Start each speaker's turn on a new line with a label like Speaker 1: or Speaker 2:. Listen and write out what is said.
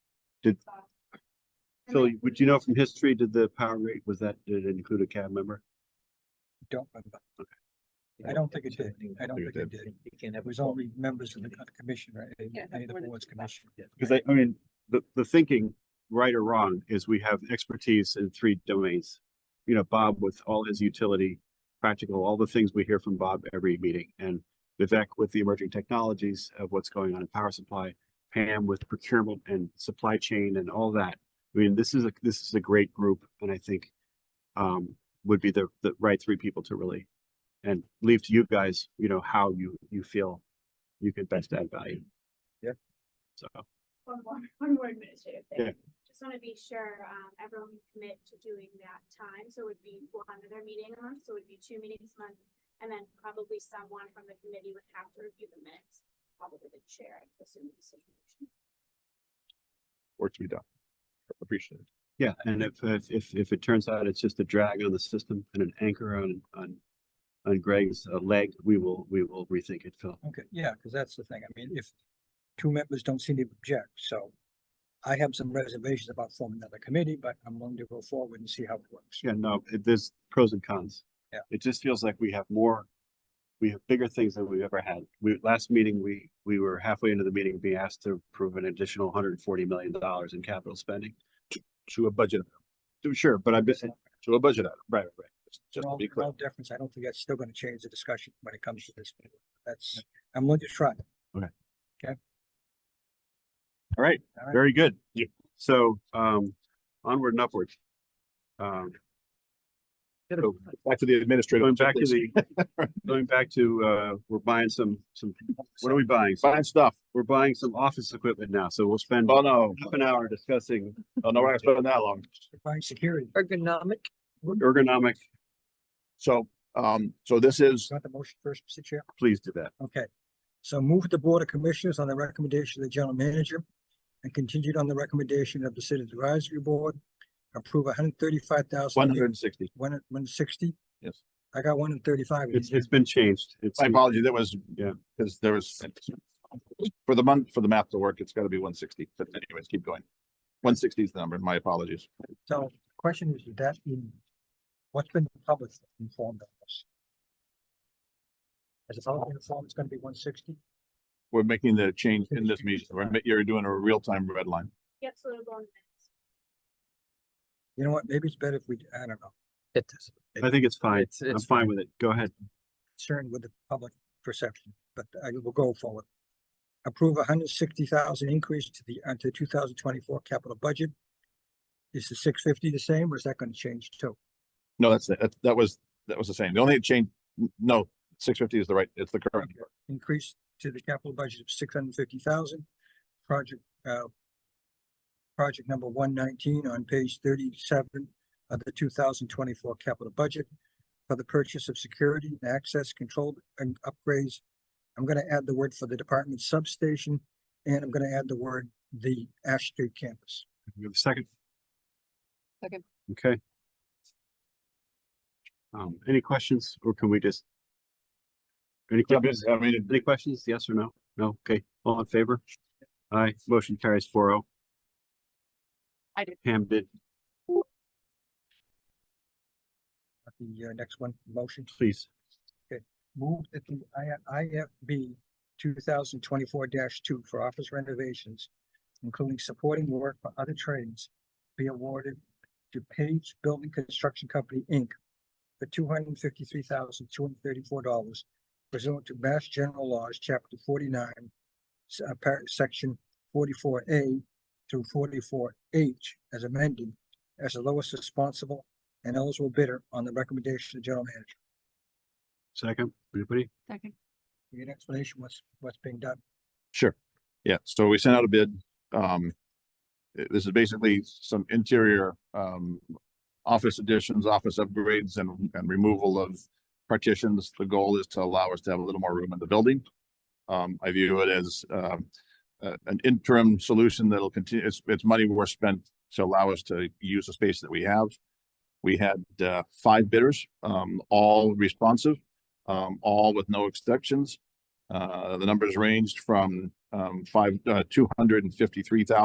Speaker 1: Phil, would you know from history, did the power rate, was that, did it include a cab member?
Speaker 2: Don't remember. I don't think it did. I don't think it did. It was only members of the co- commission, right? Any-
Speaker 3: Yeah,
Speaker 2: Any of
Speaker 3: more
Speaker 2: the
Speaker 3: than
Speaker 2: boards
Speaker 3: two thousand.
Speaker 2: commission.
Speaker 1: Because I, I mean, the, the thinking, right or wrong, is we have expertise in three domains. You know, Bob with all his utility, practical, all the things we hear from Bob every meeting, and Vivek with the emerging technologies of what's going on in power supply, Pam with procurement and supply chain and all that. I mean, this is a, this is a great group, and I think um, would be the, the right three people to really, and leave to you guys, you know, how you, you feel you could best add value.
Speaker 4: Yeah.
Speaker 1: So.
Speaker 5: One more, one more administrative
Speaker 1: Yeah.
Speaker 5: thing. Just wanna be sure, um, everyone can commit to doing that time, so it'd be one other meeting a month, so it'd be two meetings a month. And then probably someone from the committee would have to review the minutes, probably the chair, assuming the situation.
Speaker 4: Work to be done. Appreciate it.
Speaker 1: Yeah, and if, if, if, if it turns out it's just a drag on the system and an anchor on, on, on Greg's uh, leg, we will, we will rethink it, Phil.
Speaker 2: Okay, yeah, because that's the thing. I mean, if two members don't seem to object, so I have some reservations about forming another committee, but I'm willing to go forward and see how it works.
Speaker 1: Yeah, no, it- there's pros and cons.
Speaker 2: Yeah.
Speaker 1: It just feels like we have more, we have bigger things than we've ever had. We, last meeting, we, we were halfway into the meeting, being asked to approve an additional hundred and forty million dollars in capital spending.
Speaker 4: To a budget,
Speaker 1: Sure, but I've been, right,
Speaker 4: to a budget item,
Speaker 1: right, right.
Speaker 2: In
Speaker 4: just to
Speaker 2: all,
Speaker 4: be
Speaker 2: in
Speaker 4: clear.
Speaker 2: all deference, I don't think that's still gonna change the discussion when it comes to this. That's, I'm willing to try.
Speaker 1: All right,
Speaker 2: All right.
Speaker 1: very good.
Speaker 4: Yeah.
Speaker 1: So, um, onward and upward. Um, so-
Speaker 4: Oh, Back to the administrative.
Speaker 1: Going back to
Speaker 4: please.
Speaker 1: the, going back to, uh, we're buying some, some, what are we buying?
Speaker 4: Fine stuff.
Speaker 1: We're buying some office equipment now, so we'll spend
Speaker 4: Oh, no.
Speaker 1: half an hour discussing
Speaker 4: Oh, no, we're not spending that long.
Speaker 2: Find security.
Speaker 3: Ergonomic.
Speaker 1: ergonomic.
Speaker 4: So, um, so this is
Speaker 2: Got the motion first, Mr. Chair?
Speaker 1: Please do that.
Speaker 2: Okay, so move the Board of Commissioners on the recommendation of the General Manager and continued on the recommendation of the City Advisory Board, approve a hundred thirty-five thousand.
Speaker 4: one hundred and sixty.
Speaker 2: One, one sixty?
Speaker 4: Yes.
Speaker 2: I got one and thirty-five. in
Speaker 1: It's,
Speaker 2: here.
Speaker 1: it's been changed. It's,
Speaker 4: My apology, that was,
Speaker 1: Yeah.
Speaker 4: because there was, for the month, for the math to work, it's gotta be one sixty, but anyways, keep going. One sixty is the number, my apologies.
Speaker 2: So the question is, is that in, what's been published informed of this? As a public informed, it's gonna be one sixty?
Speaker 4: We're making the change in this meeting. We're ma- You're doing a real-time red line.
Speaker 5: Yep, so it'll go on the minutes.
Speaker 2: You know what, maybe it's better if we, I don't know,
Speaker 3: It does.
Speaker 1: I think it's fine.
Speaker 3: It's,
Speaker 1: I'm
Speaker 3: it's
Speaker 1: fine with it. Go ahead.
Speaker 2: concerned with the public perception, but I will go forward. Approve a hundred sixty thousand increase to the, uh, to two thousand twenty-four capital budget. Is the six fifty the same, or is that gonna change too?
Speaker 4: No, that's, that, that was, that was the same. The only change, no, six fifty is the right, it's the current.
Speaker 2: Okay. Increase to the capital budget of six hundred fifty thousand, project, uh. Project number one nineteen on page thirty-seven of the two thousand twenty-four capital budget. For the purchase of security and access control and upgrades. I'm gonna add the word for the department substation, and I'm gonna add the word the Ash Street campus.
Speaker 1: We have a second.
Speaker 3: Second.
Speaker 1: Okay. Um, any questions or can we just? Any
Speaker 4: Yeah,
Speaker 1: questions?
Speaker 4: I mean,
Speaker 1: Any questions? Yes or no? No? Okay. All in favor? Aye. Motion carries four oh.
Speaker 3: I did.
Speaker 1: Pam did.
Speaker 2: The uh, next one, motion.
Speaker 1: Please.
Speaker 2: Move that the I- IFB two thousand twenty-four two for office renovations, including supporting work for other trades, be awarded to Page Building Construction Company, Inc. for two hundred and fifty-three thousand, two hundred and thirty-four dollars pursuant to Mass General Laws, Chapter forty-nine, s- uh, par- Section forty-four A through forty-four H as amended as the lowest responsible and eligible bidder on the recommendation of the general manager.
Speaker 1: Second. Anybody?
Speaker 3: Second.
Speaker 2: Need an explanation what's, what's being done?
Speaker 4: Sure. Yeah, so we sent out a bid. Um, i- this is basically some interior, um, office additions, office upgrades and, and removal of partitions. The goal is to allow us to have a little more room in the building. Um, I view it as, um, a- an interim solution that'll continue, it's, it's money we're spent to allow us to use the space that we have. We had, uh, five bidders, um, all responsive, um, all with no exceptions. Uh, the numbers ranged from, um, five, uh, two hundred and fifty-three thousand